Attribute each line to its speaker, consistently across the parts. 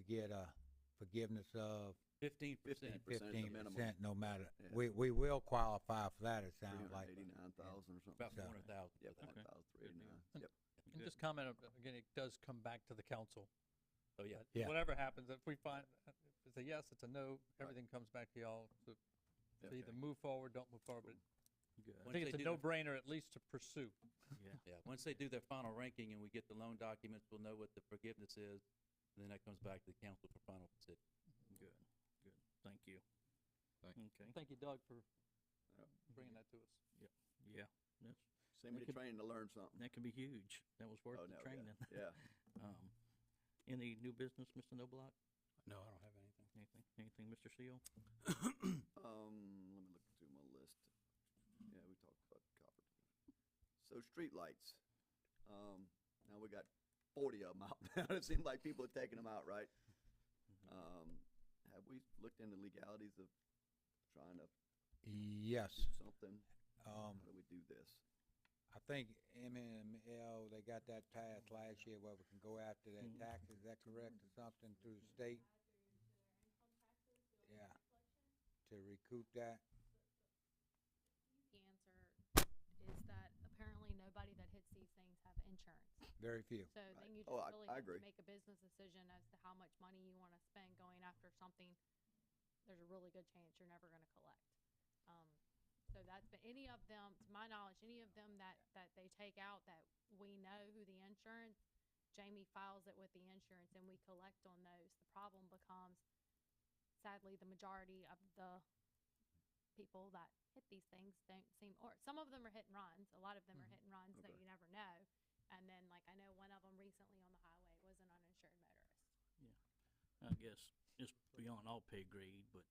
Speaker 1: get a forgiveness of
Speaker 2: Fifteen percent.
Speaker 3: 15%. Percent, the
Speaker 1: fifteen
Speaker 3: minimum.
Speaker 1: percent, no matter,
Speaker 3: Yeah.
Speaker 1: we, we will qualify for that, it
Speaker 3: Three
Speaker 1: sounds
Speaker 3: hundred
Speaker 1: like.
Speaker 3: eighty-nine thousand or something.
Speaker 2: About four hundred thousand.
Speaker 3: Yeah, four
Speaker 4: Okay.
Speaker 3: hundred thousand, three eighty-nine,
Speaker 4: deal.
Speaker 3: yep.
Speaker 4: And just comment, on- again, it does come back to the council.
Speaker 2: So, yeah,
Speaker 4: Uh,
Speaker 1: Yeah.
Speaker 4: Whatever happens, if we find, if it's a yes, it's a no, everything comes back to y'all. So to
Speaker 3: Okay.
Speaker 4: either move forward, don't move forward, but I
Speaker 2: Once
Speaker 4: think
Speaker 2: they
Speaker 4: it's a
Speaker 2: do their-
Speaker 4: no-brainer at least to pursue.
Speaker 2: yeah, once they do their final ranking and we get the loan documents, we'll know what the forgiveness is. And then that comes back to the council for final decision.
Speaker 5: Good, good. Thank you.
Speaker 6: Thank
Speaker 5: Okay,
Speaker 4: Thank you, Doug, for
Speaker 3: Yep.
Speaker 4: bringing that to us.
Speaker 5: yeah, that's,
Speaker 3: Somebody
Speaker 5: could-
Speaker 3: trained to learn something.
Speaker 5: that could be huge. That was worth
Speaker 3: Oh,
Speaker 5: the
Speaker 3: no, yeah,
Speaker 5: training.
Speaker 3: Yeah,
Speaker 5: Um, any new business, Mr. Noblock?
Speaker 6: No, I don't have anything.
Speaker 5: Anything, anything, Mr. Seal?
Speaker 3: um, let me look through my list. Yeah, we talked about copper. So streetlights, um, now we got forty of them out now. It seems like people are taking them out, right? Um, have we looked into legalities of trying to
Speaker 1: Yes,
Speaker 3: do something?
Speaker 1: um,
Speaker 3: How do we do this?
Speaker 1: I think MML, they got that passed last year where we can go after that
Speaker 3: Mm-hmm.
Speaker 5: Mhm.
Speaker 1: tax, is that correct, or something through the state? Yeah, to recoup that,
Speaker 7: The answer is that apparently nobody that hits these things have insurance.
Speaker 1: very few.
Speaker 7: So
Speaker 3: Right.
Speaker 7: then you
Speaker 3: Oh,
Speaker 7: just
Speaker 3: I-
Speaker 7: really
Speaker 3: I
Speaker 7: have
Speaker 3: agree.
Speaker 7: to make a business decision as to how much money you wanna spend going after something. There's a really good chance you're never gonna collect. Um, so that's, but any of them, to my knowledge, any of them that, that they take out that we know who the insurance, Jamie files it with the insurance and we collect on those. The problem becomes sadly, the majority of the people that hit these things don't seem, or some of them are hit and runs. A lot of them are hit and runs that
Speaker 3: Mm-hmm. Okay.
Speaker 7: you never know. And then, like, I know one of them recently on the highway was an uninsured motorist.
Speaker 5: I guess it's beyond all pay grade, but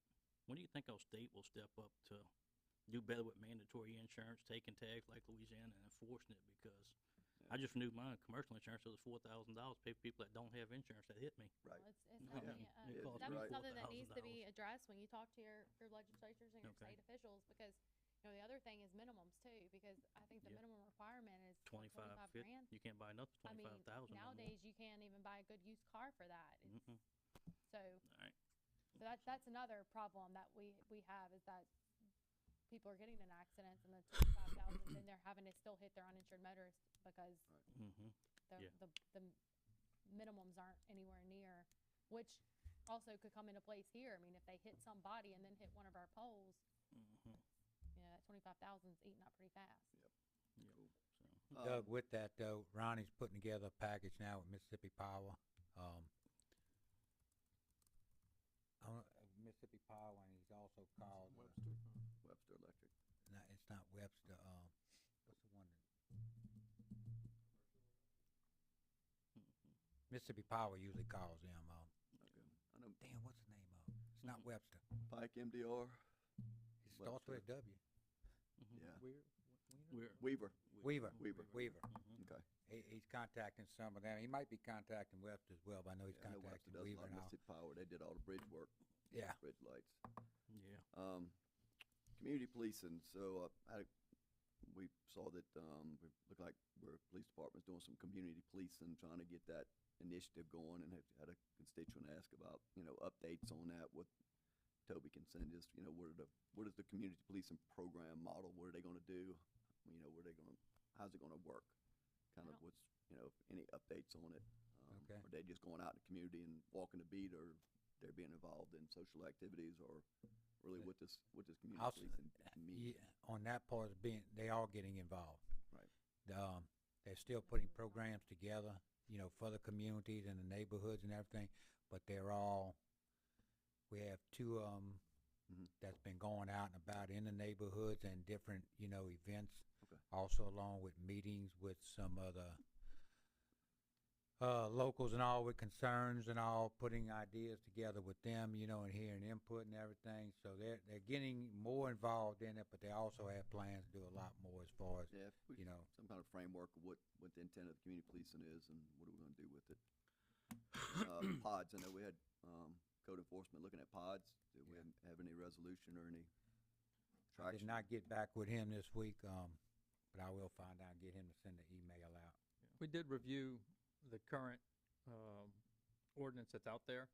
Speaker 5: when do you think our state will step up to do better with mandatory insurance, taking tags like Louisiana and enforcing it? Because I just renewed my commercial insurance, it was four thousand dollars, pay for people that don't have insurance that hit me.
Speaker 3: Right.
Speaker 7: Well, It's, it's
Speaker 5: I
Speaker 3: Yeah.
Speaker 7: definitely,
Speaker 5: mean,
Speaker 7: uh,
Speaker 5: it
Speaker 3: Yeah,
Speaker 5: costs
Speaker 3: that's
Speaker 5: me
Speaker 7: definitely
Speaker 3: Right.
Speaker 7: something that needs to
Speaker 5: $4,000.
Speaker 7: be addressed when you talk to your, your legislatures and your
Speaker 5: Okay.
Speaker 7: state officials, because, you know, the other thing is minimums too, because I think the
Speaker 5: Yeah.
Speaker 7: minimum requirement is like,
Speaker 5: Twenty-five,
Speaker 7: twenty-five
Speaker 5: fifty,
Speaker 7: grand.
Speaker 5: you can't buy another
Speaker 7: I mean,
Speaker 5: twenty-five thousand no more.
Speaker 7: nowadays, you can't even buy a good used car for that. It's-
Speaker 5: Mm-mm.
Speaker 7: So
Speaker 5: Alright.
Speaker 7: So that's, that's another problem that we, we have is that people are getting in accidents and the twenty-five thousand, and they're having to still hit their uninsured motorist because
Speaker 5: Mm-hmm.
Speaker 7: the,
Speaker 5: Yeah.
Speaker 7: the, the minimums aren't anywhere near, which also could come into place here. I mean, if they hit somebody and then hit one of our poles,
Speaker 5: Mm-hmm.
Speaker 7: you know, that twenty-five thousand's eating up pretty fast.
Speaker 5: So,
Speaker 3: Um,
Speaker 1: Doug, with that though, Ronnie's putting together a package now with Mississippi Power, um. I don't- uh, Mississippi Power, and he's also called, uh,
Speaker 3: Um, Webster Electric.
Speaker 1: no, it's not Webster, um, what's the one that?
Speaker 3: Mm-hmm.
Speaker 1: Mississippi Power usually calls them, um,
Speaker 3: Okay. I know
Speaker 1: damn, what's the name of it? It's not
Speaker 3: Mm-hmm.
Speaker 5: Mhm.
Speaker 1: Webster,
Speaker 3: Pike MDR.
Speaker 1: it starts with a W,
Speaker 5: mhm.
Speaker 3: Yeah.
Speaker 5: We're.
Speaker 3: Weaver.
Speaker 1: Weaver,
Speaker 3: Weaver.
Speaker 1: Weaver.
Speaker 5: Mhm.
Speaker 3: Okay.
Speaker 1: He, he's contacting some of them, he might be contacting Webster as well, but I know he's
Speaker 3: Yeah, I know Webster
Speaker 1: contacting
Speaker 3: does a
Speaker 1: Weaver
Speaker 3: lot
Speaker 1: and
Speaker 3: of
Speaker 1: all,
Speaker 3: Mississippi Power. They did all the bridge work.
Speaker 1: yeah.
Speaker 3: Bridge lights.
Speaker 5: mm-hmm. Yeah.
Speaker 3: Um, community policing, so, uh, I, we saw that, um, we look like we're, police department's doing some community policing, trying to get that initiative going, and had, had a constituent ask about, you know, updates on that, what Toby can send us, you know, what are the, what is the community policing program model, what are they gonna do? You know, what are they gonna, how's it gonna work? Kind
Speaker 7: I
Speaker 3: of
Speaker 7: don't-
Speaker 3: what's, you know, any updates on it? Um,
Speaker 1: Okay.
Speaker 3: Are they just going out in the community and walking the beat, or they're being involved in social activities, or really
Speaker 1: Yeah. uh,
Speaker 3: what this, what this community
Speaker 1: I'll s-
Speaker 3: policing means?
Speaker 1: Yeah, on that part is being, they are getting involved.
Speaker 3: Right.
Speaker 1: The, Um, they're still putting programs together, you know, for the communities and the neighborhoods and everything, but they're all, we have two of 'em
Speaker 3: Mhm.
Speaker 1: that's been going out and about in the neighborhoods and different, you know, events.
Speaker 3: Okay.
Speaker 1: Also along with meetings with some other, uh, locals and all with concerns and all, putting ideas together with them, you know, and hearing input and everything. So they're, they're getting more involved in it, but they also have plans to do a lot more as far as,
Speaker 3: Mm-hmm. Yeah, if we-
Speaker 1: you know,
Speaker 3: some kind of framework of what, what the intent of the community policing is and what are we gonna do with it? Uh, Pods, I know we had, um, code enforcement looking at pods. Did we have any resolution or any
Speaker 1: I did
Speaker 3: traction?
Speaker 1: not get back with him this week, um, but I will find out, and get him to send an email out.
Speaker 4: We did review the current, um, ordinance that's out there.